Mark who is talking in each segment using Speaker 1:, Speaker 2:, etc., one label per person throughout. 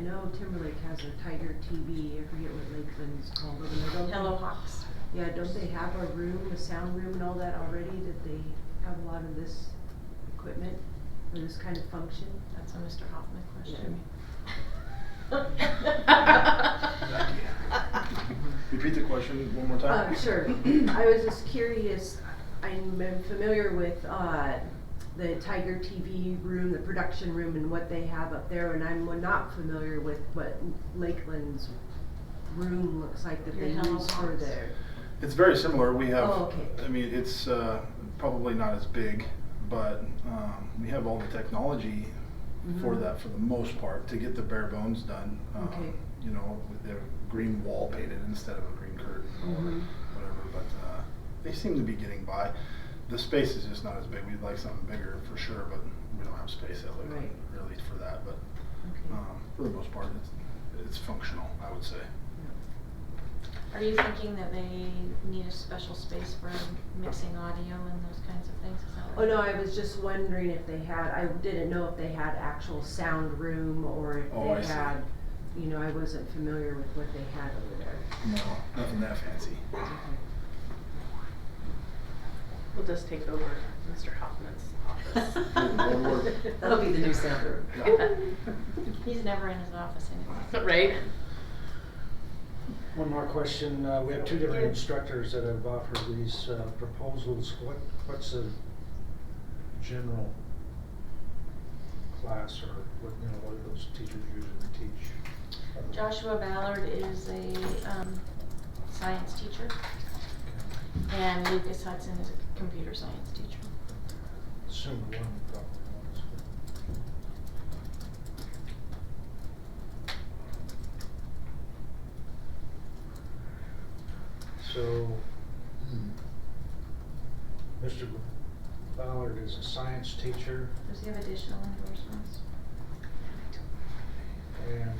Speaker 1: know Timberlake has a Tiger TV, I forget what Lakeland's called over there, don't they?
Speaker 2: Hello Hawks.
Speaker 1: Yeah, don't they have a room, a sound room and all that already, that they have a lot of this equipment for this kind of function?
Speaker 2: That's a Mr. Hoffman question.
Speaker 3: Repeat the question one more time.
Speaker 1: Uh, sure. I was just curious, I'm familiar with, uh, the Tiger TV room, the production room and what they have up there, and I'm not familiar with what Lakeland's room looks like that
Speaker 2: Your
Speaker 1: they
Speaker 2: Hello
Speaker 1: use for
Speaker 2: Box.
Speaker 1: their.
Speaker 3: It's very similar. We have,
Speaker 1: Oh, okay.
Speaker 3: I mean, it's uh, probably not as big, but um, we have all the technology for
Speaker 1: Mhm.
Speaker 3: that for the most part to get the bare bones done. Um,
Speaker 1: Okay.
Speaker 3: You know, with the green wall painted instead of a green curtain
Speaker 1: Mhm.
Speaker 3: or whatever, but uh, they seem to be getting by. The space is just not as big. We'd like something bigger for sure, but we don't have space at Lakeland
Speaker 1: Right.
Speaker 3: really for that. But
Speaker 1: Okay.
Speaker 3: um, for the most part, it's, it's functional, I would say.
Speaker 2: Are you thinking that they need a special space for mixing audio and those kinds of things? Is that
Speaker 1: Oh,
Speaker 2: what-
Speaker 1: no, I was just wondering if they had, I didn't know if they had actual sound room or if
Speaker 3: Oh, I
Speaker 1: they
Speaker 3: see.
Speaker 1: had, you know, I wasn't familiar with what they had over there.
Speaker 3: No, nothing that fancy.
Speaker 4: We'll just take over Mr. Hoffman's office.
Speaker 2: Lord.
Speaker 4: That'll be the new sound room.
Speaker 2: He's never in his office anymore.
Speaker 4: Right?
Speaker 5: One more question, uh, we have two different instructors that have offered these uh, proposals, what, what's the general class or what, you know, what do those teachers usually teach?
Speaker 2: Joshua Ballard is a, um, science teacher
Speaker 5: Okay.
Speaker 2: and Lucas Hudson is a computer science teacher.
Speaker 5: Assume one probably was. but- So, hmm. Mr. Ballard is a science teacher
Speaker 2: Does he have additional endorsements?
Speaker 5: and,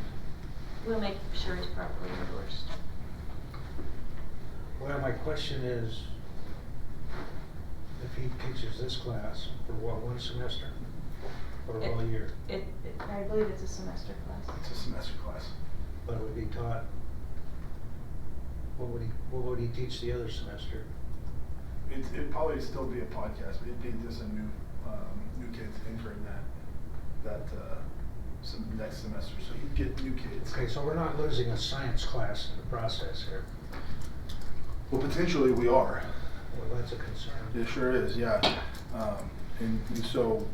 Speaker 2: We'll make sure he's properly endorsed.
Speaker 5: well, my question is, if he teaches this class for what, one semester? Or
Speaker 2: It-
Speaker 5: all year?
Speaker 2: It, it- I believe it's a semester class.
Speaker 3: It's a semester class.
Speaker 5: But would be taught, what would he, what would he teach the other semester?
Speaker 3: It, it'd probably still be a podcast, but it'd be just a new, um, new kids entering that, that, uh, some, next semester, so you'd get new kids.
Speaker 5: Okay, so we're not losing a science class in the process here.
Speaker 3: Well, potentially we are.
Speaker 5: Well, that's a concern.
Speaker 3: It sure is, yeah. Um, and, and so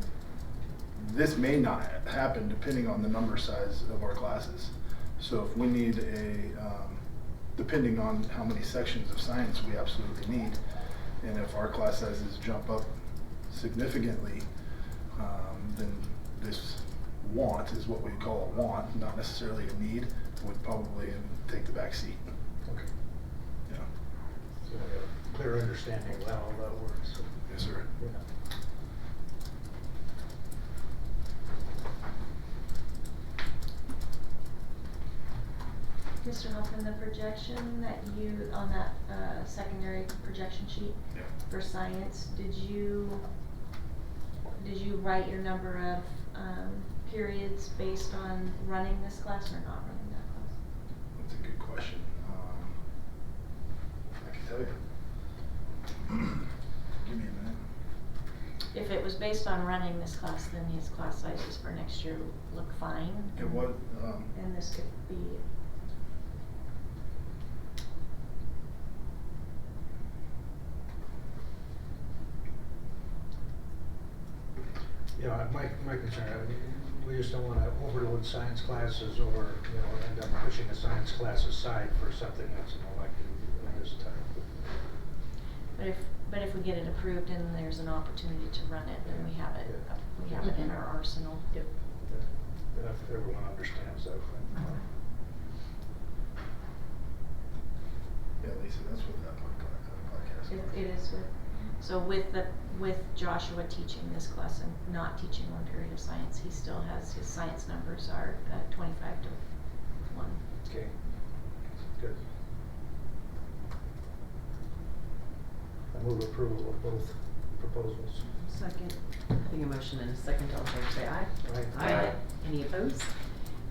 Speaker 3: this may not ha- happen depending on the number size of our classes. So if we need a, um, depending on how many sections of science we absolutely need, and if our class sizes jump up significantly, um, then this want is what we call a want, not necessarily a need, would probably take the back seat.
Speaker 5: Okay.
Speaker 3: Yeah.
Speaker 5: So we have a clear understanding of how all that works.
Speaker 3: Yes, sir.
Speaker 5: Yeah.
Speaker 2: Mr. Hoffman, the projection that you, on that, uh, secondary projection sheet
Speaker 3: Yeah.
Speaker 2: for science, did you, did you write your number of, um, periods based on running this class or not running that class?
Speaker 3: That's a good question. Um, I can tell you. Give me a minute.
Speaker 2: If it was based on running this class, then these class sizes for next year look fine.
Speaker 3: It was, um,
Speaker 2: And this could be,
Speaker 5: Yeah, I- my, my concern, I mean, we just don't wanna overload science classes or, you know, end up pushing a science class aside for something that's an elective of this type.
Speaker 2: but if, but if we get it approved and there's an opportunity to run it, then we have it,
Speaker 5: Yeah.
Speaker 2: we have it in our arsenal.
Speaker 4: Yep.
Speaker 5: Yeah, If everyone understands that.
Speaker 3: yeah, Lisa, that's what that uh, podcast,
Speaker 2: It,
Speaker 3: that podcast.
Speaker 2: it is with, so with the, with Joshua teaching this class and not teaching one period of science, he still has, his science numbers are uh, twenty-five to one.
Speaker 5: Okay. Good. I move approval of both proposals.
Speaker 4: Second. I think a motion and a second, all in favor say aye.
Speaker 5: Aye.
Speaker 2: Aye.
Speaker 4: Any opposed?